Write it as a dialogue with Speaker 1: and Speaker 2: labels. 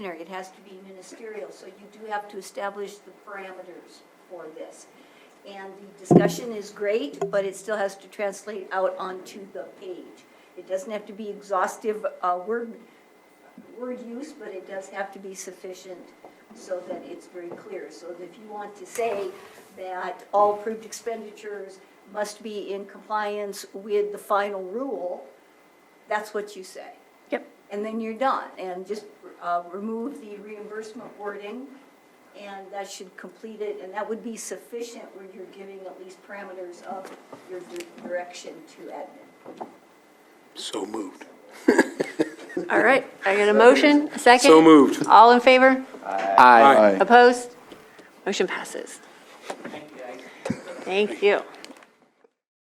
Speaker 1: It has to be ministerial, so you do have to establish the parameters for this. And the discussion is great, but it still has to translate out onto the page. It doesn't have to be exhaustive uh, word, word use, but it does have to be sufficient so that it's very clear. So that if you want to say that all approved expenditures must be in compliance with the final rule, that's what you say
Speaker 2: Yep.
Speaker 1: and then you're done. And just uh, remove the reimbursement wording, and that should complete it, and that would be sufficient where you're giving at least parameters of your di- direction to admin.
Speaker 3: So moved.
Speaker 2: All right, I got a motion, a second?
Speaker 3: So moved.
Speaker 2: All in favor?
Speaker 3: Aye.
Speaker 2: Opposed? Motion passes. Thank you.